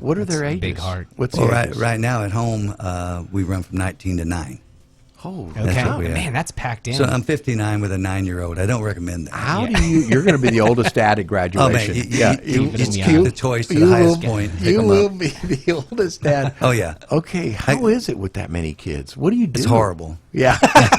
What are That's their a ages? big heart. What's Well, the Oh, right, ages? right now at home, uh, we run from 19 to 9. Oh, Okay. That's what we have. Man, that's packed in. So um, I'm 59 with a nine year old. I don't recommend that. How do you? You're going to be the oldest dad at Oh, graduation. man. You, you, yeah, you, Keep it you in the keep eye. the toys to you the highest will- point. and pick You 'em will up. be the oldest dad. Oh, yeah. Okay, how is it with that many kids? What do you do? It's horrible.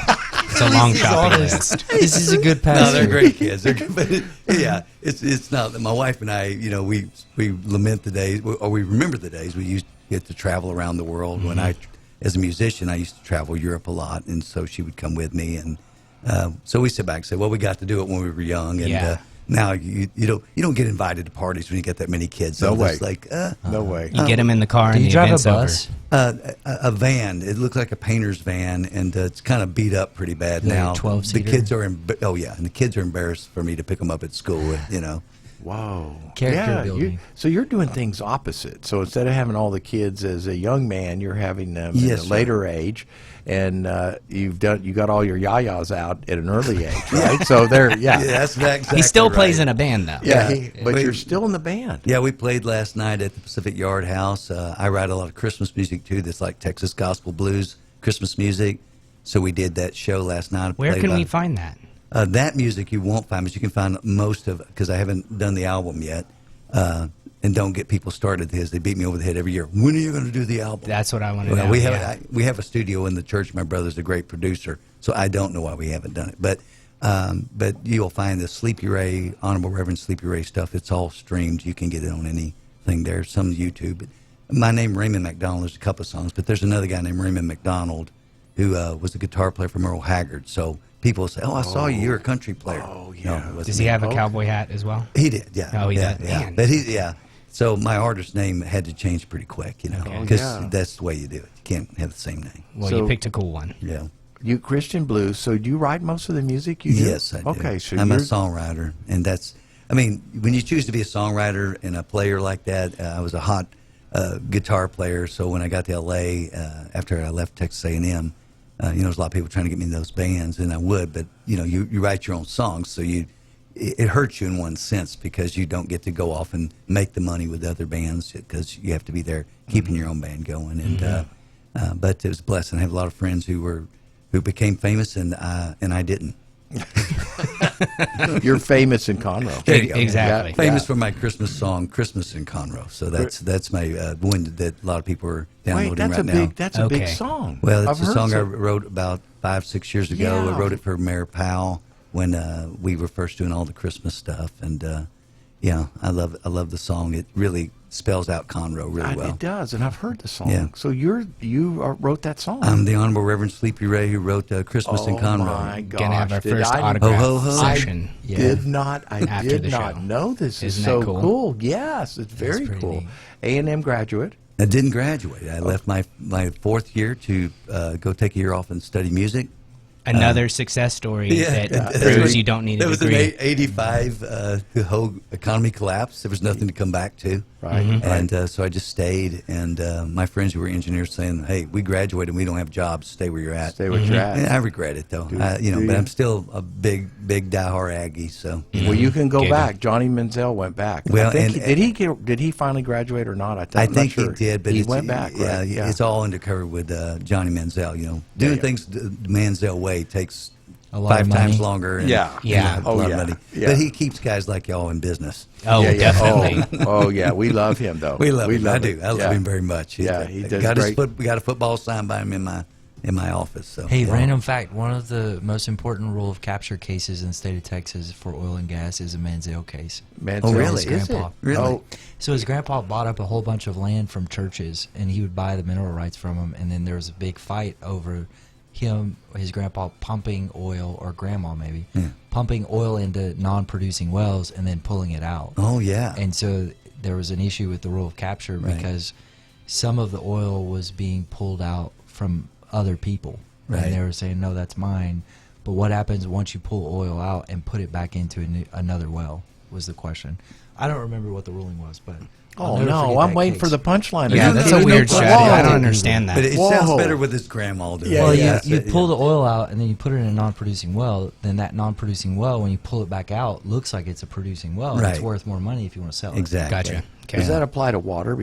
Yeah, Uh-huh. it's a long shopping list. This is a good pass. No, they're great kids. They're, but it, yeah, it's it's not. My wife and I, you know, we we lament the days, or we remember the days we used to get to travel around the world. When I, as a musician, I used to travel Europe a lot, and so she would come with me, and uh, so we sit back and say, well, we got to do it when we were young, and. Yeah. Uh, now you you don't you don't get invited to parties when you get that many kids. No I'm just way. Like uh, no way. You get them in the car Do and you the drive event's a bus? over. uh, a, a van. It looked like a painter's van, and uh, it's kind of beat up pretty bad Like a now. 12-seater? The kids are emb- oh yeah, and the kids are embarrassed for me to pick them up at school. You know, Wow. Character yeah, You, building. so you're doing things opposite. So instead of having all the kids as a young man, you're having them Yes, at a sir. later age, and uh, you've done you got all your yayas out at an early age, right? so there, yeah, yeah, that's that exactly. He still plays right. in a band though. yeah. Yeah. he- but We- you're still in the band. Yeah, we played last night at the Pacific Yard House. Uh, I write a lot of Christmas music too. That's like Texas gospel blues, Christmas music. So we did that show last night. Where Played can about- we find that? Uh, that music you won't find, but you can find most of it because I haven't done the album yet. Uh, and don't get people started because they beat me over the head every year. When are you going to do the album? That's what I want to Well, know. we have yeah. I, we have a studio in the church. My brother's a great producer, so I don't know why we haven't done it. But um, but you'll find the Sleepy Ray, Honorable Reverend Sleepy Ray stuff. It's all streamed. You can get it on anything there. Some YouTube. But my name Raymond McDonald. There's a couple of songs, but there's another guy named Raymond McDonald who uh, was a guitar player from Earl Haggard. So people say, "Oh, I saw you. You're a country player." Oh yeah. Does he have a cowboy hat as well? He did, yeah. Oh, he yeah, did? yeah. Man. But he, yeah. So my artist name had to change pretty quick, you know, Okay. because yeah. that's the way you do it. You can't have the same name. Well, you So- picked a cool one. Yeah. You Christian blues. So do you write most of the music? You do? Yes, I do. Okay, so I'm a you're, songwriter, and that's. I mean, when you choose to be a songwriter and a player like that, uh, I was a hot uh, guitar player. So when I got to L.A. Uh, after I left Texas A&M, uh, you know, there's a lot of people trying to get me in those bands, and I would, but you know, you, you write your own songs, so you it, it hurts you in one sense because you don't get to go off and make the money with other bands because you have to be there keeping Mm-hmm. your own band going. And uh, uh, but it was a blessing. I have a lot of friends who were who became famous, and I, and I didn't. you're famous in Conroe. There you go. Exactly. Yeah. Famous for my Christmas song, "Christmas in Conroe." So that's that's my uh, one that a lot of people are downloading Wait, that's right a now. big that's a big Okay. song. well, it's I've a heard song I some- wrote about five six years ago. Yeah. I wrote it for Mayor Powell when uh, we were first doing all the Christmas stuff, and uh, yeah, I love I love the song. It really spells out Conroe really I- well. It does, and I've heard the song. Yeah. So you're you are, wrote that song. I'm the Honorable Reverend Sleepy Ray who wrote uh, "Christmas in Oh, Conroe." my gosh! Gonna have our did first I- autograph Ho, ho, ho. session. I did not. I After did the not show. know this is Isn't so that cool? Yes, it's very pretty cool. neat. A and M graduate. I didn't graduate. I left my my fourth year to uh, go take a year off and study music. Another success story that Yeah. proves you don't need There a was an degree. eight- 85, uh, the whole economy collapsed. There was nothing to come back to. Right, Mhm. And uh, so I just stayed. And uh, my friends who were engineers saying, hey, we graduated and we don't have jobs. Stay where you're at. Stay Mm-hmm. where you're at. And I regret it, though. I, you know, do but you? I'm still a big, big diehard Aggie. So, Well, you can go Giggle. back. Johnny Menzel went back. I Well, think and- he- did he get, did he finally graduate or not? I, th- I I'm not think sure. he did, but he it's, went back. Yeah, right? yeah. it's all undercover with uh, Johnny Manziel. You know, doing yeah. things the Manziel way takes A lot five of times money. longer. And, Yeah. you Yeah. know, Oh, a lot yeah. of money. Yeah. But he keeps guys like y'all in business. oh, Yeah, yeah. definitely. Oh, oh, yeah. We love him though. We love him. I him. do. I love Yeah. him very much. He's Yeah, a- he does got his great. foot, we got a football signed by him in my in my office. So Hey, yeah. random fact: one of the most important rule of capture cases in the state of Texas for oil and gas is a Manziel case. Menzel. Oh, really? Is it? Grandpa. Really? Oh, So his grandpa bought up a whole bunch of land from churches, and he would buy the mineral rights from them. And then there was a big fight over him, his grandpa pumping oil, or grandma maybe, pumping oil into non-producing wells and then pulling it out. Oh yeah. And so there was an issue with the rule of capture Right. because some of the oil was being pulled out from other people. Right. And they were saying, no, that's mine. But what happens once you pull oil out and put it back into a new, another well was the question. I don't remember what the ruling was, but. I'll oh never no! forget I'm that waiting case. for the punchline. yeah, You that's know, a you weird know, strategy. I don't whoa. understand that. but it Whoa. sounds better with his grandma doing Yeah, it. Well, yeah. you, you That's it, pull the oil out and then you put it in a non-producing well. Then that non-producing well, when you pull it back out, looks like it's a producing well. and It's Right. worth more money if you want to sell it. Exactly. Gotcha. Okay. Does that apply to water?